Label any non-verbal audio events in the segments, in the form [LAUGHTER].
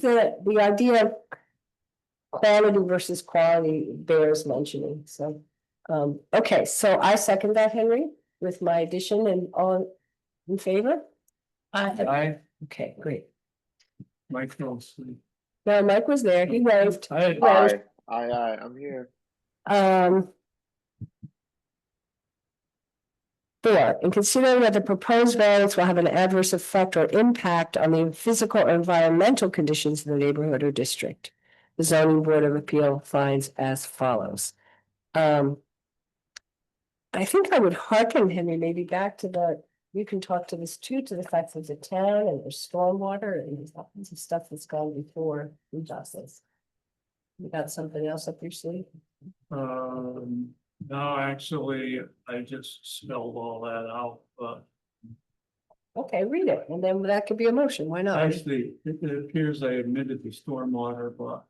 the, the idea of quality versus quality bears mentioning, so. Um, okay, so I second that, Henry, with my addition and all in favor? I, I, okay, great. Mike fell asleep. Now, Mike was there, he waved, I, Well, Aye, aye, aye, I'm here. um. Four, in considering that the proposed variance will have an adverse effect or impact on the physical or environmental conditions in the neighborhood or district. The zoning board of appeal finds as follows. Um. I think I would hearken Henry maybe back to the, you can talk to this too, to the fact that the town and there's stormwater and there's all kinds of stuff that's gone before we does this. You got something else up your sleeve? um, no, actually, I just spelled all that out, but Okay, read it, and then that could be a motion, why not? actually, it it appears I admitted the stormwater, but.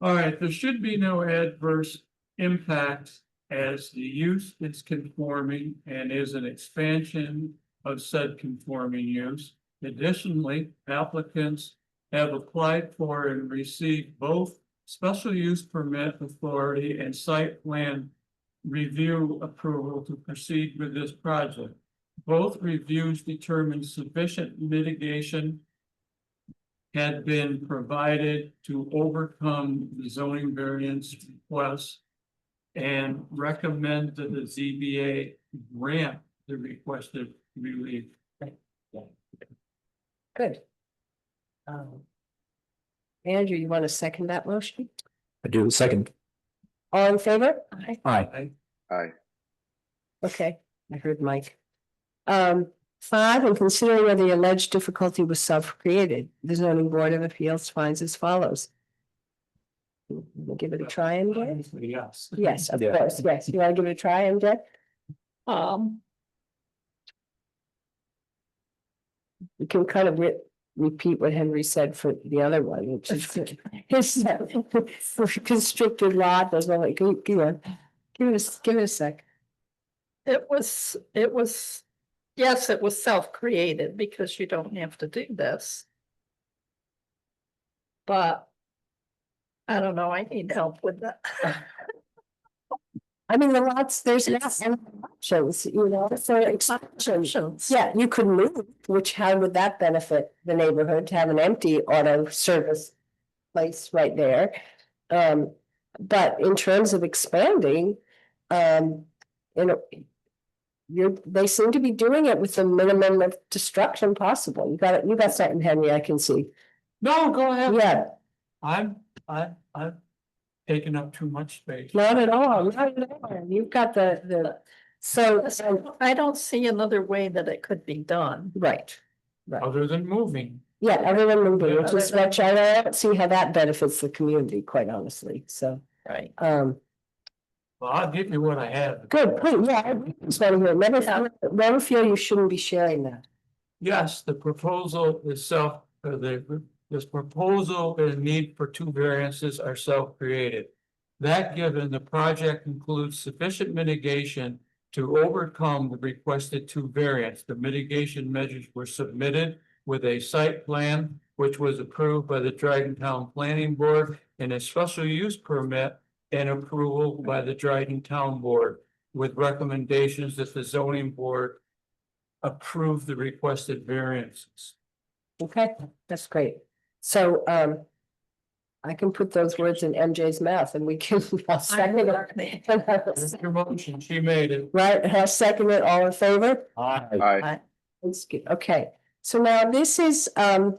All right, there should be no adverse impacts as the use is conforming and is an expansion of said conforming use. Additionally, applicants have applied for and received both special use permit authority and site plan review approval to proceed with this project. Both reviews determined sufficient mitigation had been provided to overcome the zoning variance request and recommend that the ZBA grant the requested relief. Good. Um, Andrew, you want to second that motion? I do, second, All in favor? Aye. aye, Aye, Okay, I heard Mike. Um, five, in considering whether the alleged difficulty was self-created, the zoning board of appeals finds as follows. We'll Give it a try, MJ? Yes. Yes, of Yeah. course, yes, you want to give it a try, MJ? Um, You can kind of re- repeat what Henry said for the other one, which is. His [LAUGHS] constricted lot, there's no, like, you know, give us, give it a sec. it was, it was, yes, it was self-created because you don't have to do this. But I don't know, I need help with that. I mean, the lots, there's lots of options, you know, so expansion. Options. Yeah, you could move, which how would that benefit the neighborhood to have an empty auto service place right there? Um, but in terms of expanding, um, you know, you're, they seem to be doing it with the minimum of destruction possible. You got it, you got something, Henry, I can see. No, go ahead. Yeah, I'm, I, I've taken up too much space. not at all, not at all. You've got the, the, so, so- [LAUGHS] I don't see another way that it could be done. right. Other than moving. Yeah, everyone moving, which Yeah. is what I don't see how that benefits the community, quite honestly, so, Right. um, Well, I'll give you what I have. good, point. yeah, I agree with you. never, Yeah. feel- never feel you shouldn't be sharing that. Yes, the proposal itself, uh, the, this proposal and need for two variances are self-created. That given, the project includes sufficient mitigation to overcome the requested two variants. The mitigation measures were submitted with a site plan, which was approved by the Dryden Town Planning Board and a special use permit and approval by the Dryden Town Board with recommendations that the zoning board approve the requested variances. Okay, that's great, so, um, I can put those words in MJ's mouth and we can, [LAUGHS] I'll second it. Your motion, she made it. [LAUGHS] Right, I'll second it, all in favor? Aye. aye, It's good, okay, so now this is, um,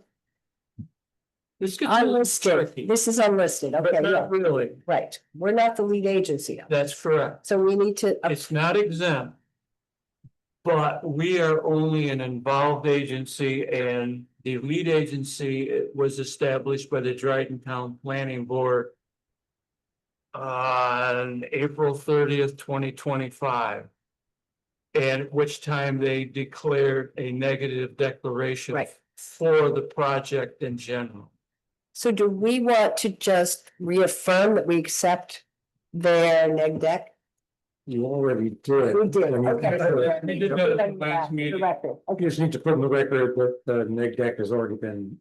This gets a little tricky, unlisted, this is unlisted, okay, but yeah, not really. right, we're not the lead agency, That's correct. so we need to. uh, It's not exempt. But we are only an involved agency and the lead agency uh, was established by the Dryden Town Planning Board on April thirtieth, twenty twenty-five. And at which time they declared a negative declaration Right. for the project in general. So do we want to just reaffirm that we accept their neg deck? You already did. We did, I mean, okay. uh, We did that at the last meeting. Director, You okay. just need to put in the record that the neg deck has already been